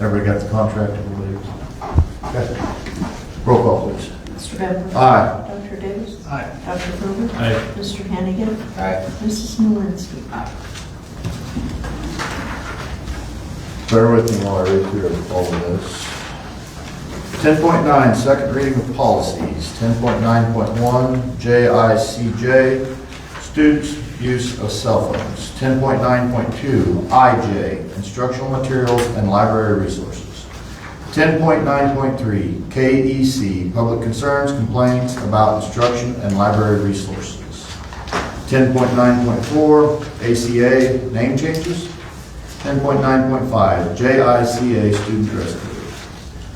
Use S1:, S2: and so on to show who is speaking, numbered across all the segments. S1: Everybody got the contract, I believe. Okay. Roll call, please.
S2: Mr. Bevler?
S1: Aye.
S2: Dr. Davis?
S3: Aye.
S2: Dr. Gerber?
S3: Aye.
S2: Mr. Hannigan?
S3: Aye.
S2: Mrs. Malinsky?
S1: Bear with me while I read through all of this. 10.9, second reading of policies. 10.9.1, JICJ, students' use of cell phones. 10.9.2, IJ, instructional materials and library resources. 10.9.3, KEC, E public concerns, complaints about instruction and library resources. 10.9.4, ACA, name changes. 10.9.5, JICA student dress code.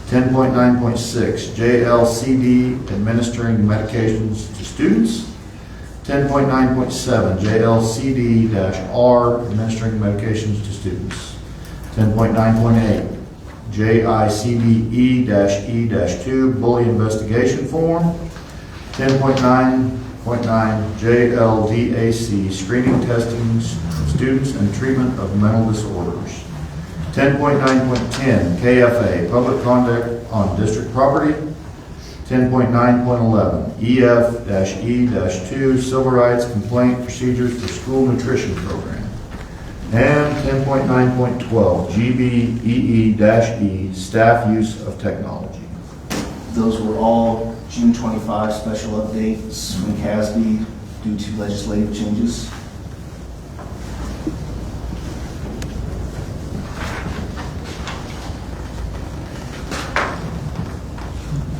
S1: 10.9.6, JLCD administering medications to students. 10.9.7, JLCD-R administering medications to students. 10.9.8, E JICDE-E-2 bully investigation form. 10.9.9 JLDAC, screening, testing students and treatment of mental disorders. 10.9.10 KFA, public conduct on district property. 10.9.11 EF-E-2, E civil rights complaint procedures for school nutrition program. And 10.9.12 E GBEE-E, E, staff use of technology.
S4: Those were all June 25 special updates from CASB due to legislative changes.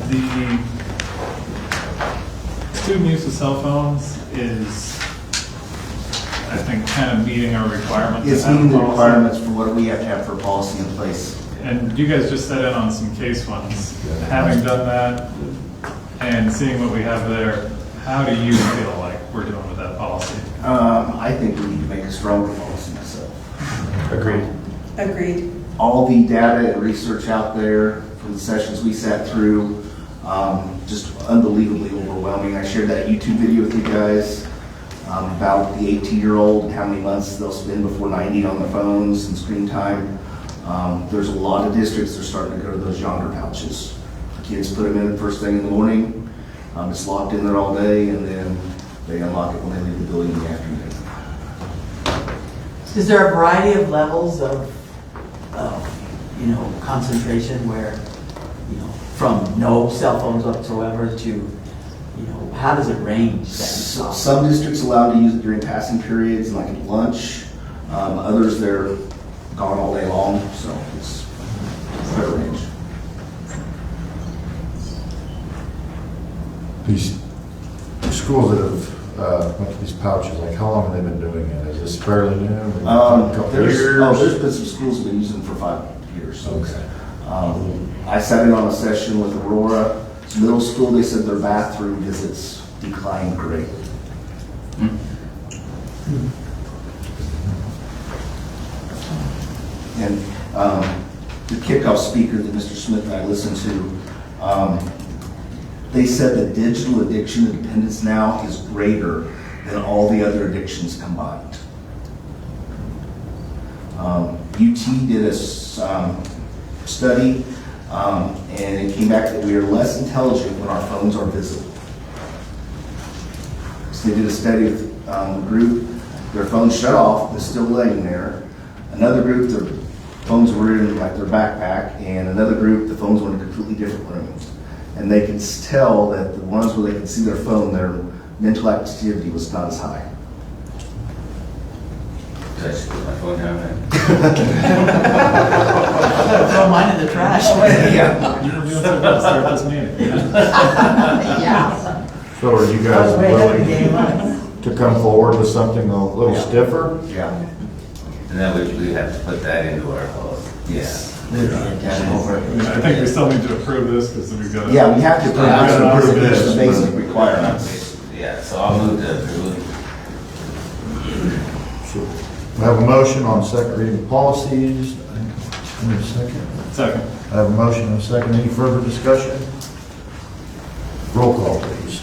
S3: The student use of cell phones is, I think, kind of meeting our requirements.
S4: It's
S3: to have a
S4: meeting the
S3: policy.
S4: requirements for what we have to have for policy in place.
S3: And you guys just set in on some case ones.
S1: Yeah.
S3: Having done that and seeing what we have there, how do you feel like we're doing with that policy?
S4: Um, I think we need to make a stronger policy myself.
S3: Agreed.
S2: Agreed.
S4: All the data and research out there from the sessions we sat through, um, just unbelievably overwhelming. I shared that YouTube video with you guys um, about the 18-year-old and how many months they'll spend before 90 on the phones and screen time. Um, There's a lot of districts that are starting to go to those yonder pouches. Kids put them in first thing in the morning, um, it's locked in there all day, and then they unlock it when they leave the building in the afternoon.
S5: Is there a variety of levels of, of, you know, concentration where, you know, from no cell phones whatsoever to, you know, how does it range?
S4: So-
S5: that?
S4: Some districts allowed to use it during passing periods, like at lunch. Um, Others, they're gone all day long, so it's fair range.
S1: These schools that have, uh, went to these pouches, like how long have they been doing it? Is this fairly new? Maybe a
S4: Um,
S1: couple
S4: There's,
S1: years?
S4: oh, there's been some schools that have been using it for five years. so it's- Um, I sat in on a session with Aurora Middle School. They said their bathroom visits declined greatly. And um, the kickoff speaker that Mr. Smith and I listened to, um, they said that digital addiction and dependence now is greater than all the other addictions combined. Um, UT did a s- um, study, um, and it came back that we are less intelligent when our phones are visible. So they did a study with um, a group, their phones shut off, they're still laying there. Another group, their phones were in like their backpack, and another group, the phones were in a completely different room. And they could s- tell that the ones where they could see their phone, their mental activity was not as high.
S6: Did I just put my phone down there?
S5: Throw mine in the trash.
S3: You were doing so well to start this meeting.
S5: Yeah.
S1: So are you
S5: That
S1: guys
S5: was way better
S1: willing
S5: than game one.
S1: to come forward with something a little stiffer?
S4: Yeah.
S6: And then we, we have to put that into our policy.
S4: Yes.
S3: I think we still need to approve this because we've got.
S4: Yeah, we have to put out
S3: Yeah,
S4: some
S3: that's
S4: pretty
S3: good.
S4: basic requirements.
S6: Yeah, so I'll move to approve.
S1: So We have a motion on second reading of policies. I need a second.
S3: Second.
S1: I have a motion and a second. Any further discussion? Roll call, please.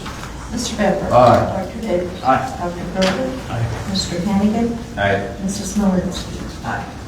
S2: Mr. Bevler?
S1: Aye.
S2: Dr. Davis?
S3: Aye.
S2: Dr. Gerber?
S3: Aye.
S2: Mr. Hannigan?
S6: All right,
S2: Mrs. Malinsky?
S5: Aye.